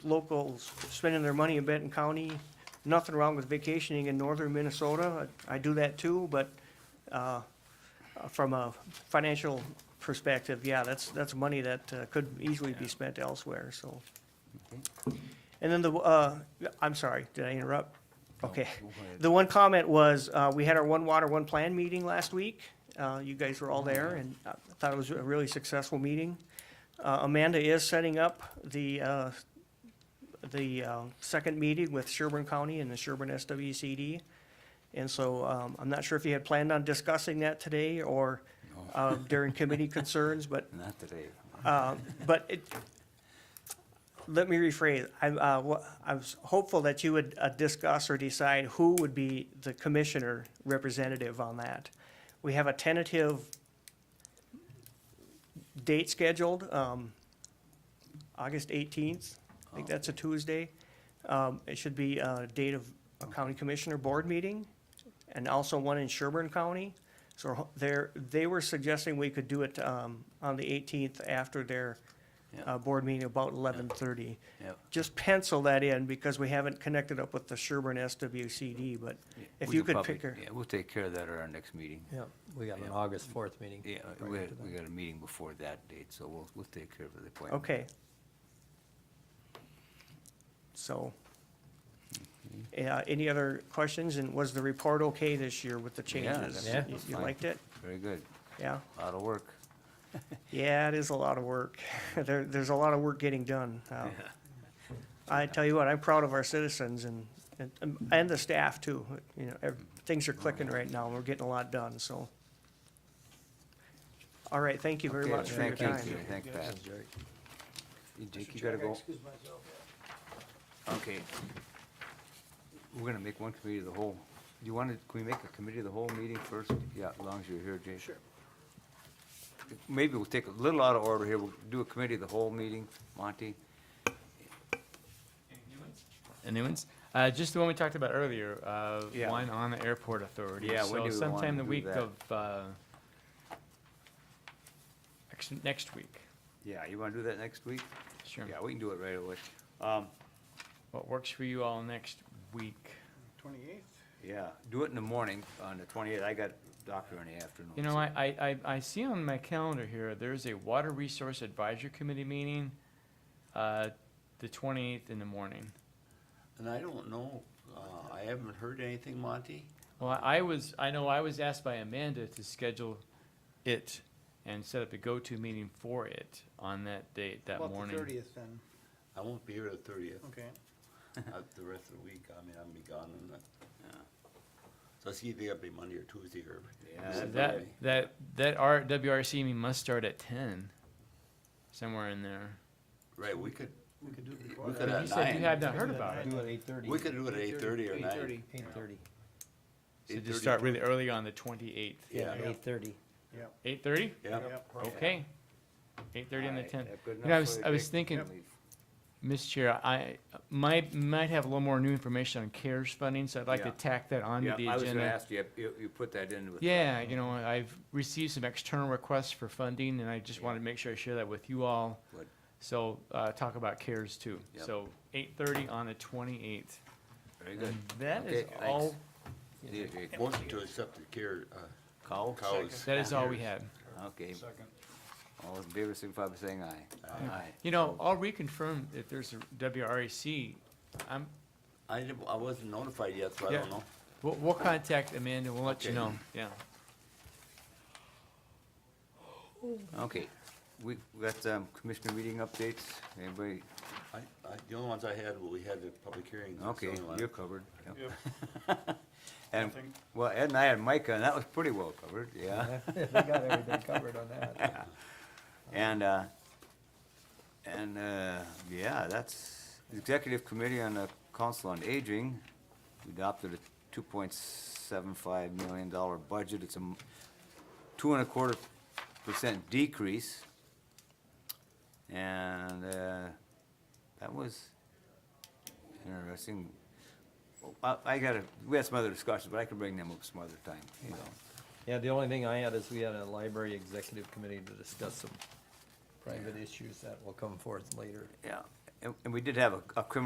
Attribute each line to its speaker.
Speaker 1: locals spending their money in Benton County. Nothing wrong with vacationing in northern Minnesota. I I do that too, but uh, uh, from a financial perspective, yeah, that's, that's money that uh, could easily be spent elsewhere, so. And then the, uh, I'm sorry, did I interrupt? Okay. The one comment was, uh, we had our One Water, One Plan meeting last week. Uh, You guys were all there, and I thought it was a really successful meeting. Uh, Amanda is setting up the, uh, the uh, second meeting with Sherburne County and the Sherburne SWCD. And so um, I'm not sure if you had planned on discussing that today or uh, during committee concerns, but
Speaker 2: Not today.
Speaker 1: uh, But it, let me rephrase, I, uh, wa- I was hopeful that you would uh, discuss or decide who would be the commissioner representative on that. We have a tentative date scheduled, um, August eighteenth, I think that's a Tuesday. Um, it should be a date of a county commissioner board meeting, and also one in Sherburne County. So there, they were suggesting we could do it, um, on the eighteenth after their,
Speaker 2: Yeah.
Speaker 1: uh, board meeting about eleven thirty.
Speaker 2: Yep.
Speaker 1: Just pencil that in because we haven't connected up with the Sherburne SWCD, but if
Speaker 2: We
Speaker 1: you
Speaker 2: can
Speaker 1: could
Speaker 2: probably-
Speaker 1: pick her.
Speaker 2: Yeah, we'll take care of that at our next meeting.
Speaker 1: Yeah.
Speaker 3: We got an
Speaker 2: Yeah.
Speaker 3: August fourth meeting.
Speaker 2: Yeah,
Speaker 3: right
Speaker 2: we,
Speaker 3: after
Speaker 2: had-
Speaker 3: that.
Speaker 2: we got a meeting before that date, so we'll, we'll take care of the appointment.
Speaker 1: Okay. So, yeah, any other questions? And was the report okay this year with the changes?
Speaker 2: that's-
Speaker 3: Yeah.
Speaker 1: You-
Speaker 2: that's
Speaker 1: You
Speaker 2: fine.
Speaker 1: liked it?
Speaker 2: Very good.
Speaker 1: Yeah.
Speaker 2: Lot of work.
Speaker 1: Yeah, it is a lot of work. There, there's a lot of work getting done. Uh, I tell you what, I'm proud of our citizens and, and, and the staff too. You know, ev- things are clicking right now. and We're getting a lot done, so. All right, thank you very
Speaker 2: Okay,
Speaker 1: much for your
Speaker 2: thank
Speaker 1: time.
Speaker 2: you, Thank Pat.
Speaker 3: Sounds great.
Speaker 2: Jake, you gotta go. Okay. We're gonna make one committee of the whole. Do you wanna, can we make a committee of the whole meeting first? Yeah, as long as you're here, Jake. Sure. Maybe we'll take a little out of order here. We'll do a committee of the whole meeting, Monty.
Speaker 4: The new ones? Uh, just the one we talked about earlier, uh,
Speaker 2: Yeah.
Speaker 4: one on the airport authority.
Speaker 2: Yeah, when do we
Speaker 4: So
Speaker 2: wanna
Speaker 4: sometime the
Speaker 2: do
Speaker 4: week
Speaker 2: that?
Speaker 4: of, uh, actually, next week.
Speaker 2: Yeah, you wanna do that next week?
Speaker 4: Sure.
Speaker 2: Yeah, we can do it right away. Um,
Speaker 4: What works for you all next week?
Speaker 2: yeah, do it in the morning on the twenty-eighth. I got doctor in the afternoon.
Speaker 4: You know,
Speaker 2: so-
Speaker 4: I, I, I I see on my calendar here, there's a Water Resource Advisory Committee meeting, uh, the twenty-eighth in the morning.
Speaker 5: And I don't know, uh, I haven't heard anything, Monty.
Speaker 4: Well, I I was, I know I was asked by Amanda to schedule it and set up a go-to meeting for it on that date, that morning.
Speaker 6: About the thirtieth then,
Speaker 5: I won't be here the thirtieth, Uh,
Speaker 6: okay.
Speaker 5: the rest of the week, I mean, I'm be gone and that. So it's either gonna be Monday or Tuesday or.
Speaker 2: Yeah,
Speaker 4: So
Speaker 5: Wednesday.
Speaker 4: that, that, that R, WRC meeting must start at ten, somewhere in there.
Speaker 5: Right, we could,
Speaker 6: We could do it before
Speaker 5: we
Speaker 6: that.
Speaker 5: could
Speaker 4: But
Speaker 5: at
Speaker 4: you said you
Speaker 5: nine,
Speaker 4: had not heard
Speaker 6: Could
Speaker 4: about
Speaker 6: at
Speaker 4: it.
Speaker 6: nine.
Speaker 3: at eight thirty.
Speaker 5: we could do it at eight thirty or
Speaker 6: Eight
Speaker 5: nine.
Speaker 6: thirty,
Speaker 3: Eight thirty,
Speaker 4: So just
Speaker 5: 8:30.
Speaker 4: start really early on the twenty-eighth.
Speaker 5: Yeah,
Speaker 3: eight thirty.
Speaker 6: yep,
Speaker 4: Eight thirty?
Speaker 5: yeah.
Speaker 6: yep.
Speaker 4: Okay. Eight thirty on the
Speaker 2: Alright,
Speaker 4: tenth.
Speaker 2: that good
Speaker 4: You
Speaker 2: enough
Speaker 4: know, I
Speaker 2: for
Speaker 4: was-
Speaker 2: you,
Speaker 4: I was
Speaker 2: Jake?
Speaker 4: thinking- Mr. Chair, I might, might have a little more new information on CARES funding, so I'd like to
Speaker 2: Yeah.
Speaker 4: tack that onto the
Speaker 2: Yeah,
Speaker 4: agenda.
Speaker 2: I was gonna ask you, you, you put that in with.
Speaker 4: Yeah, you know, I've received some external requests for funding, and I just
Speaker 2: Yeah.
Speaker 4: wanted to make sure I share that with you all.
Speaker 2: Good.
Speaker 4: So, uh, talk about CARES too.
Speaker 2: Yep.
Speaker 4: So, eight thirty on the twenty-eighth.
Speaker 2: Very good.
Speaker 4: That is
Speaker 2: Okay,
Speaker 4: all, Mm-hmm.
Speaker 2: Yeah, Jake.
Speaker 5: Motion to accept the care, uh,
Speaker 2: Call?
Speaker 5: cows.
Speaker 4: that is all we had.
Speaker 2: Okay. All in favor, signify by saying aye. Aye.
Speaker 4: You know, I'll reconfirm if there's a WRAC. I'm,
Speaker 5: I didn't, I wasn't notified yet, so I
Speaker 4: Yeah.
Speaker 5: don't know.
Speaker 4: we'll, we'll contact Amanda, we'll let you
Speaker 5: Okay.
Speaker 4: know, yeah.
Speaker 2: Okay, we, we got, um, commissioner meeting updates, anybody,
Speaker 5: I, I, the only ones I had, well, we had the public hearings. that's the
Speaker 2: okay,
Speaker 5: only one.
Speaker 2: you're covered. Yep. And, well, Ed and I had Micah, and that was pretty well covered, yeah.
Speaker 3: We got everything covered on that.
Speaker 2: And, uh, and, uh, yeah, that's, the Executive Committee on the Council on Aging adopted a two point seven five million dollar budget. It's a m- two and a quarter percent decrease. And, uh, that was interesting. I, I gotta, we had some other discussions, but I can bring them up some other time, you know.
Speaker 3: Yeah, the only thing I had is we had a library executive committee to discuss some private issues that will come forth later.
Speaker 2: Yeah, and, and we did have a, a criminal